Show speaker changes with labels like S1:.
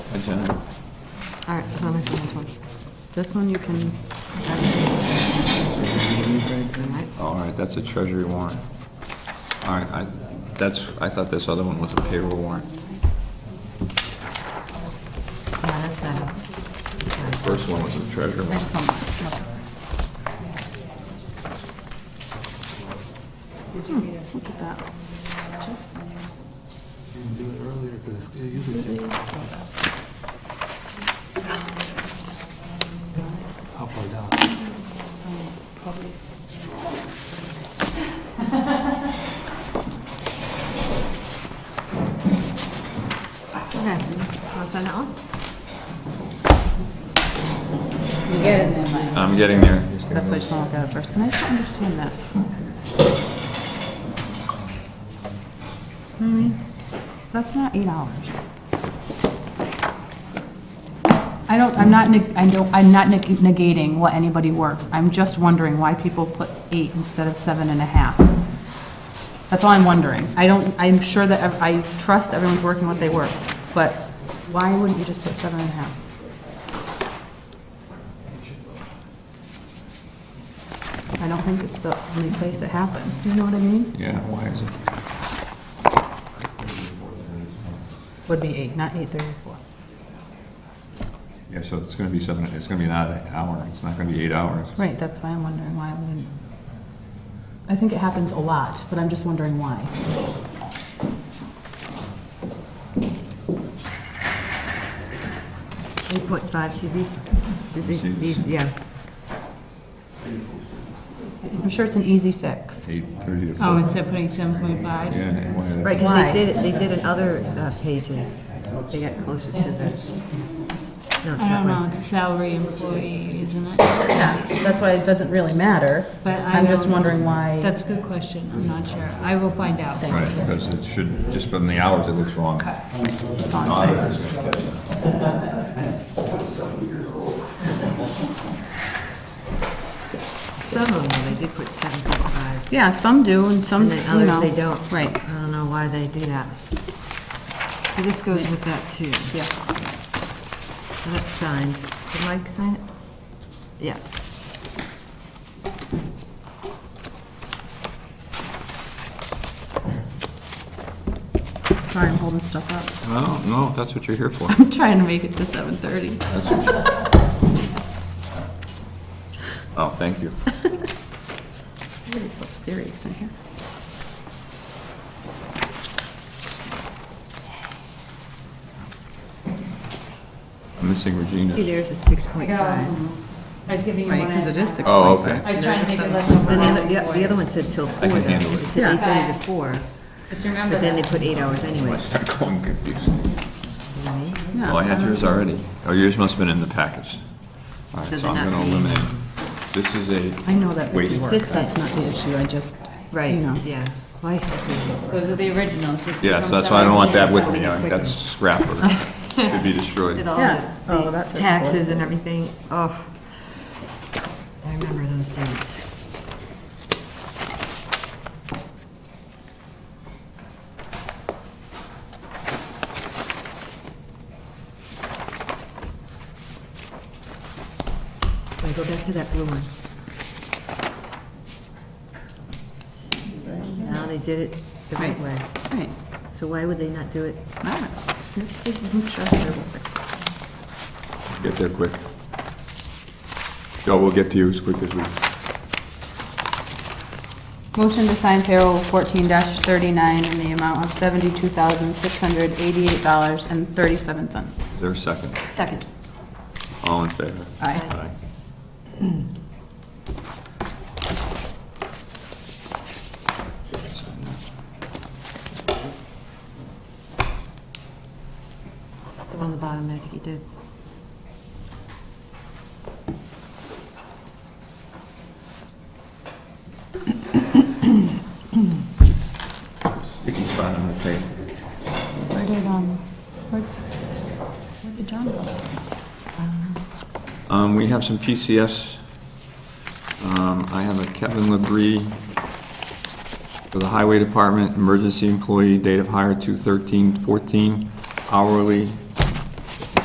S1: comments on that?
S2: All right, comments on this one.
S3: This one you can,
S2: All right.
S1: All right, that's a treasury warrant. All right, I, that's, I thought this other one was a payroll warrant.
S2: Yeah, that's that.
S1: First one was a treasury
S3: I
S1: warrant.
S3: just want, okay. Hmm, Look at that.
S4: Didn't do it earlier, 'cause it's- it usually takes- How far down?
S2: Okay, want to sign that one?
S3: You get it in there,
S1: I'm getting there.
S3: That's why I just want to look at it first. And I just don't understand this. Hmm, That's not eight hours. I don't, I'm not, neg- I don't, I'm not neg- negating what anybody works. I'm just wondering why people put eight instead of seven and a half. That's all I'm wondering. I don't, I'm sure that, ev- I trust everyone's working what they work, but why wouldn't you just put seven and a half? I don't think it's the only place it happens. Do you know what I mean?
S1: Yeah, why is it?
S3: Would be eight, not eight thirty-four.
S1: Yeah, so it's gonna be seven, it's gonna be an odd hour, it's not gonna be eight hours.
S3: Right, that's why I'm wondering why I wouldn't. I think it happens a lot, but I'm just wondering why.
S2: Eight point five CVs, CVs,
S1: CVs.
S2: yeah.
S3: I'm sure it's an easy fix.
S1: Eight thirty to four.
S5: Oh, instead of putting seven point five?
S1: Yeah, and why that-
S2: Right, because
S3: Why?
S2: they did, it. they did in other uh, pages, they got closer to the, no, it's
S5: I
S2: not
S5: don't know,
S2: one.
S5: it's a salary employee, isn't it?
S3: Yeah, that's why it doesn't really matter.
S5: But I
S3: I'm just
S5: don't-
S3: wondering why.
S5: That's a good question, I'm not sure. I will find out.
S1: Right, because it should, just from the hours, it looks wrong.
S3: That's all I'm saying.
S1: Auditors.
S2: Some of them, they did put seven point five,
S3: Yeah, some do and
S2: and
S3: some, Um, you
S2: then others,
S3: know.
S2: they don't.
S3: Right,
S2: I don't know why they do that. So this goes with that too.
S3: yeah.
S2: And That's signed. Did Mike sign it? Yeah.
S3: Sorry, I'm holding stuff up.
S1: No, no, that's what you're here for.
S3: I'm trying to make it to seven thirty.
S1: That's what you- Oh, thank you.
S3: Everybody's so serious in here.
S1: I'm missing
S2: See,
S1: Regina.
S2: there's a six point five.
S5: I was giving you
S3: Right, because it is six.
S1: Oh, okay.
S5: I was trying to think of less
S2: Then the other, the- the other one said till four
S1: can
S2: though.
S1: handle it.
S2: It said eight thirty to four,
S5: Just remember
S2: but then they
S5: that.
S2: put eight hours
S1: I
S2: anyway.
S1: start going confused.
S3: Yeah.
S1: Oh, I had yours already. Oh, yours must have been in the package. All right,
S2: So
S1: so
S2: they're
S1: I'm
S2: not
S1: going to
S2: being-
S1: eliminate. This is a,
S3: I know that would
S1: Wait.
S3: work.
S2: Consistent.
S3: That's not the issue. I just,
S2: Right,
S3: you know.
S2: yeah. Why is it?
S5: Those are the originals, just. give
S1: yeah, so
S5: them
S1: that's why I don't want that
S5: seven.
S1: with me. I- That's scrap or should be destroyed.
S2: With all
S3: Yeah.
S2: the-
S3: Oh,
S2: the
S3: that's it.
S2: taxes and everything, oh. I remember those dates. Wait, go back to that blue one. Now they did it the right way.
S3: Right.
S2: So why would they not do it?
S3: Ah,
S2: Let's see, I'm sure they're
S1: Get there quick. Joe, we'll get to you as quick as we,
S3: Motion to sign payroll fourteen thirty-nine in the amount of seventy-two thousand, six hundred, eighty-eight dollars and thirty-seven
S1: is
S3: cents.
S1: there a second?
S2: Second.
S1: All in favor?
S3: Aye.
S1: Aye.
S2: The one on the bottom, I think he did.
S1: Sticky spot on the tape.
S3: Where did, um, where, where did John go?
S1: Um, we have some PCFs. Um, I have a Kevin Labrie for the Highway Department, emergency employee, date of hire 2/13/14, hourly,